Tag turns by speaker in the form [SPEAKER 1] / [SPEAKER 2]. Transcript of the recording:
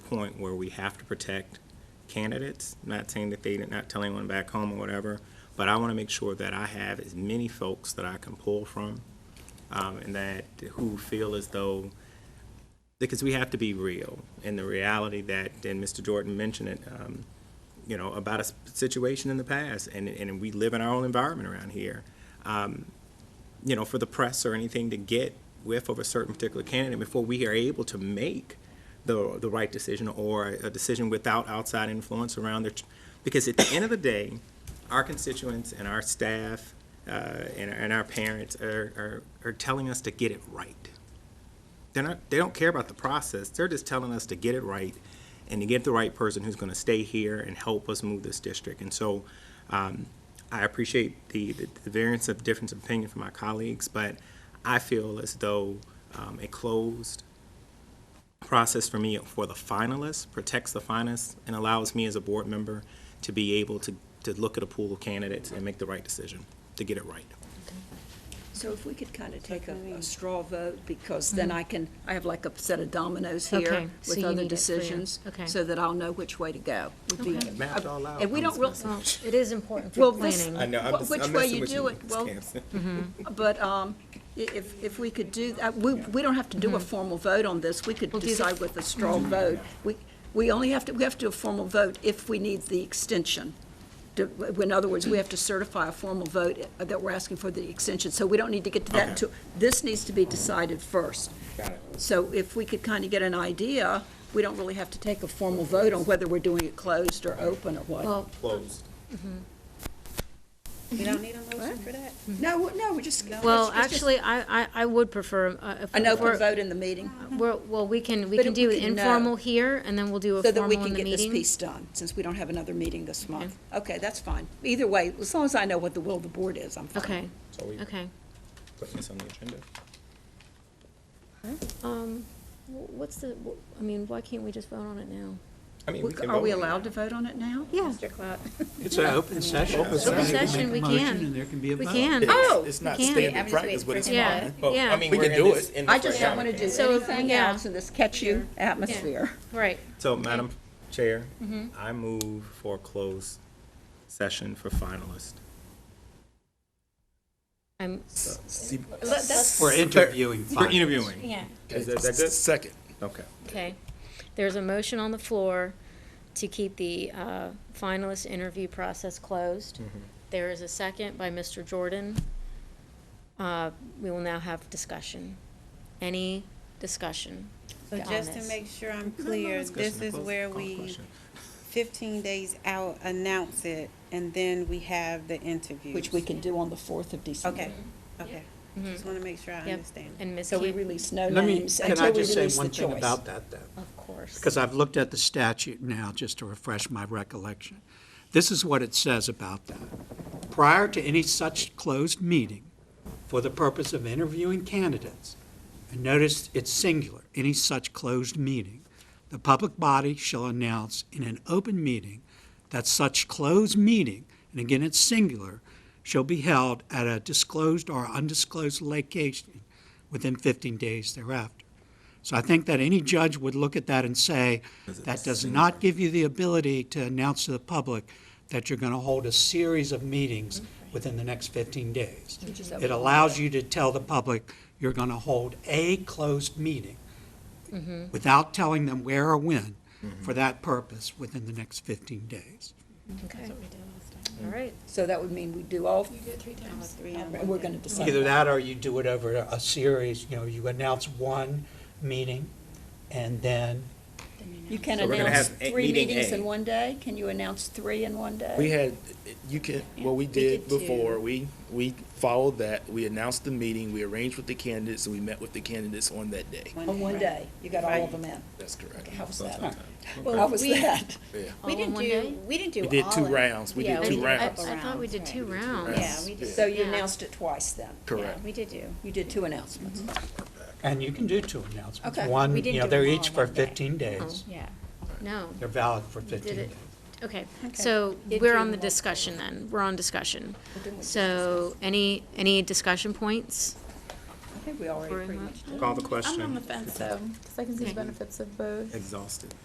[SPEAKER 1] point where we have to protect candidates, not saying that they, not telling anyone back home or whatever, but I want to make sure that I have as many folks that I can pull from, um, and that, who feel as though, because we have to be real, and the reality that, and Mr. Jordan mentioned it, um, you know, about a s- situation in the past, and, and we live in our own environment around here you know, for the press or anything to get whiff of a certain particular candidate before we are able to make the, the right decision or a decision without outside influence around their, ch- because at the end of the day, our constituents and our staff uh, and, and our parents are, are, are telling us to get it right. They're not, they don't care about the process, they're just telling us to get it right and to get the right person who's gonna stay here and help us move this district. And so, um, I appreciate the, the the variance of difference of opinion from my colleagues, but I feel as though, um, a closed process for me for the finalists protects the finalists and allows me as a board member to be able to, to look at a pool of candidates and make the right decision, to get it right.
[SPEAKER 2] So if we could kind of take a, a straw vote, because then I can, I have like a set of dominoes
[SPEAKER 3] Mm-hmm. Okay,
[SPEAKER 2] here
[SPEAKER 3] so
[SPEAKER 2] with
[SPEAKER 3] you
[SPEAKER 2] other
[SPEAKER 3] need it for your-
[SPEAKER 2] decisions.
[SPEAKER 3] okay.
[SPEAKER 2] So that I'll know which way to go. would be-
[SPEAKER 3] Okay.
[SPEAKER 1] Mapped all out.
[SPEAKER 2] And we don't really,
[SPEAKER 3] Well, it is important
[SPEAKER 2] Well,
[SPEAKER 3] for
[SPEAKER 2] this-
[SPEAKER 3] planning.
[SPEAKER 1] I know, I'm
[SPEAKER 2] Wh-
[SPEAKER 1] just,
[SPEAKER 2] which
[SPEAKER 1] I'm
[SPEAKER 2] way
[SPEAKER 1] messing
[SPEAKER 2] you
[SPEAKER 1] with
[SPEAKER 2] do
[SPEAKER 1] you,
[SPEAKER 2] it,
[SPEAKER 1] Ms.
[SPEAKER 2] well,
[SPEAKER 1] Campson.
[SPEAKER 2] but, um, i- if, if we could do, that, we, we don't have to do a formal vote on this. We could
[SPEAKER 3] We'll do the-
[SPEAKER 2] decide with a straw vote. We, we only have to, we have to do a formal vote if we need the extension. To- In other words, we have to certify a formal vote uh, that we're asking for the extension, so we don't need to get to that
[SPEAKER 1] Okay.
[SPEAKER 2] until, this needs to be decided first.
[SPEAKER 1] Got it.
[SPEAKER 2] So if we could kind of get an idea, we don't really have to take a formal vote on whether we're doing it closed or open or what.
[SPEAKER 3] Well,
[SPEAKER 1] Closed.
[SPEAKER 4] You don't need a motion for that?
[SPEAKER 2] No, no, we just.
[SPEAKER 3] well,
[SPEAKER 2] it's just-
[SPEAKER 3] actually, I, I, I would prefer, uh, if.
[SPEAKER 2] An
[SPEAKER 3] we're-
[SPEAKER 2] open vote in the meeting,
[SPEAKER 3] We're, well, we can, we
[SPEAKER 2] But
[SPEAKER 3] can
[SPEAKER 2] if we
[SPEAKER 3] do it
[SPEAKER 2] could know.
[SPEAKER 3] informal here, and then we'll do a
[SPEAKER 2] so that
[SPEAKER 3] formal
[SPEAKER 2] we
[SPEAKER 3] in
[SPEAKER 2] can
[SPEAKER 3] the
[SPEAKER 2] get this
[SPEAKER 3] meeting.
[SPEAKER 2] piece done, since we don't have another meeting this month. Okay, that's fine. Either way, as long as I know what the will of the board is, I'm fine.
[SPEAKER 3] Okay,
[SPEAKER 1] So we
[SPEAKER 3] okay.
[SPEAKER 1] putting this on the agenda?
[SPEAKER 3] Um, wh- what's the, wh- I mean, why can't we just vote on it now?
[SPEAKER 1] I mean, we can
[SPEAKER 2] Are we
[SPEAKER 1] vote.
[SPEAKER 2] allowed to vote on it now?
[SPEAKER 3] Yeah.
[SPEAKER 4] Mr. Clark?
[SPEAKER 5] It's an open session.
[SPEAKER 3] Open session, we
[SPEAKER 5] Motion,
[SPEAKER 3] can.
[SPEAKER 5] and there can be a
[SPEAKER 3] We
[SPEAKER 5] vote.
[SPEAKER 3] can.
[SPEAKER 2] Oh,
[SPEAKER 6] It's not
[SPEAKER 3] we can.
[SPEAKER 4] I'm
[SPEAKER 6] standard
[SPEAKER 4] just
[SPEAKER 6] practice,
[SPEAKER 4] waiting
[SPEAKER 6] but
[SPEAKER 4] for
[SPEAKER 6] it's
[SPEAKER 4] some-
[SPEAKER 3] Yeah,
[SPEAKER 6] fine.
[SPEAKER 1] Well,
[SPEAKER 3] yeah.
[SPEAKER 1] I mean,
[SPEAKER 6] We
[SPEAKER 1] we're
[SPEAKER 6] can
[SPEAKER 1] in
[SPEAKER 6] do
[SPEAKER 1] this-
[SPEAKER 6] it.
[SPEAKER 1] in this
[SPEAKER 2] I just don't want to do
[SPEAKER 3] So,
[SPEAKER 2] anything
[SPEAKER 3] yeah.
[SPEAKER 2] else in this catch-you atmosphere.
[SPEAKER 3] Right,
[SPEAKER 1] So, Madam Chair, I move for a closed session for finalists.
[SPEAKER 3] I'm,
[SPEAKER 5] We're interviewing.
[SPEAKER 1] For
[SPEAKER 5] finalists.
[SPEAKER 1] interviewing.
[SPEAKER 3] yeah,
[SPEAKER 1] Is that, that good?
[SPEAKER 6] Second.
[SPEAKER 1] Okay.
[SPEAKER 3] okay. There's a motion on the floor to keep the, uh, finalist interview process closed. There is a second by Mr. Jordan. Uh, we will now have discussion. Any discussion?
[SPEAKER 4] So just to
[SPEAKER 3] Comments.
[SPEAKER 4] make sure I'm clear, this is where we, fifteen days out, announce it, and then we have the interviews.
[SPEAKER 2] Which we can do on the 4th of December.
[SPEAKER 4] Okay, okay. Just wanna make sure I
[SPEAKER 3] Yep.
[SPEAKER 4] understand.
[SPEAKER 3] And Ms.
[SPEAKER 2] So we
[SPEAKER 3] Keith?
[SPEAKER 2] release no
[SPEAKER 5] Let me,
[SPEAKER 2] names
[SPEAKER 5] can I
[SPEAKER 2] until we
[SPEAKER 5] just say
[SPEAKER 2] release the
[SPEAKER 5] one thing
[SPEAKER 2] choice.
[SPEAKER 5] about that, then?
[SPEAKER 3] Of course.
[SPEAKER 5] Because I've looked at the statute now, just to refresh my recollection. This is what it says about that. Prior to any such closed meeting, for the purpose of interviewing candidates, and notice it's singular, any such closed meeting, the public body shall announce in an open meeting that such closed meeting, and again it's singular, shall be held at a disclosed or undisclosed location within 15 days thereafter. So I think that any judge would look at that and say, that does not give you the ability to announce to the public that you're going to hold a series of meetings within the next 15 days. It allows you to tell the public you're going to hold a closed meeting
[SPEAKER 7] Mm-hmm.
[SPEAKER 5] without telling them where or when for that purpose within the next 15 days.
[SPEAKER 3] Okay. All right.
[SPEAKER 2] So that would mean we do all,
[SPEAKER 4] Three on
[SPEAKER 2] we're going to decide.
[SPEAKER 5] Either that or you do it over a series, you know, you announce one meeting and then
[SPEAKER 2] You can
[SPEAKER 1] So we're gonna
[SPEAKER 2] announce
[SPEAKER 1] have a-
[SPEAKER 2] three
[SPEAKER 1] meeting
[SPEAKER 2] meetings
[SPEAKER 1] A.
[SPEAKER 2] in one day? Can you announce three in one day?
[SPEAKER 6] We had, you can, what we did before, we, we followed that. We announced the meeting, we arranged with the candidates, and we met with the candidates on that day.
[SPEAKER 2] On one day, you got all of them in.
[SPEAKER 6] That's correct.
[SPEAKER 2] How was that? How was that?
[SPEAKER 3] All
[SPEAKER 7] We
[SPEAKER 3] in
[SPEAKER 7] didn't
[SPEAKER 3] one
[SPEAKER 7] do,
[SPEAKER 3] day?
[SPEAKER 7] we didn't do all.
[SPEAKER 6] We did two
[SPEAKER 7] of-
[SPEAKER 6] rounds. We
[SPEAKER 7] yeah,
[SPEAKER 6] did two
[SPEAKER 3] I- I-
[SPEAKER 6] rounds.
[SPEAKER 3] I thought we did two rounds.
[SPEAKER 7] Yeah, we did,
[SPEAKER 2] So you
[SPEAKER 3] Yeah.
[SPEAKER 2] announced it twice then?
[SPEAKER 7] yeah,
[SPEAKER 6] Correct.
[SPEAKER 7] we did do.
[SPEAKER 2] You did two announcements.
[SPEAKER 7] Mm-hmm.
[SPEAKER 5] And you can do two announcements.
[SPEAKER 2] Okay.
[SPEAKER 5] One,
[SPEAKER 7] We
[SPEAKER 5] you
[SPEAKER 7] didn't
[SPEAKER 5] know,
[SPEAKER 7] do
[SPEAKER 5] they're
[SPEAKER 7] them all
[SPEAKER 5] each for
[SPEAKER 7] one day. Oh,
[SPEAKER 5] 15 days.
[SPEAKER 7] Yeah.
[SPEAKER 3] No.
[SPEAKER 5] They're valid for 15 days.
[SPEAKER 3] it- Okay, so we're on the discussion then. We're on discussion. So any, any discussion points?
[SPEAKER 2] I think we already pretty much did.
[SPEAKER 1] Call the
[SPEAKER 8] I'm on
[SPEAKER 1] question.
[SPEAKER 8] the fence though, because I can see the
[SPEAKER 3] Okay.
[SPEAKER 8] benefits of both.
[SPEAKER 1] Exhausted.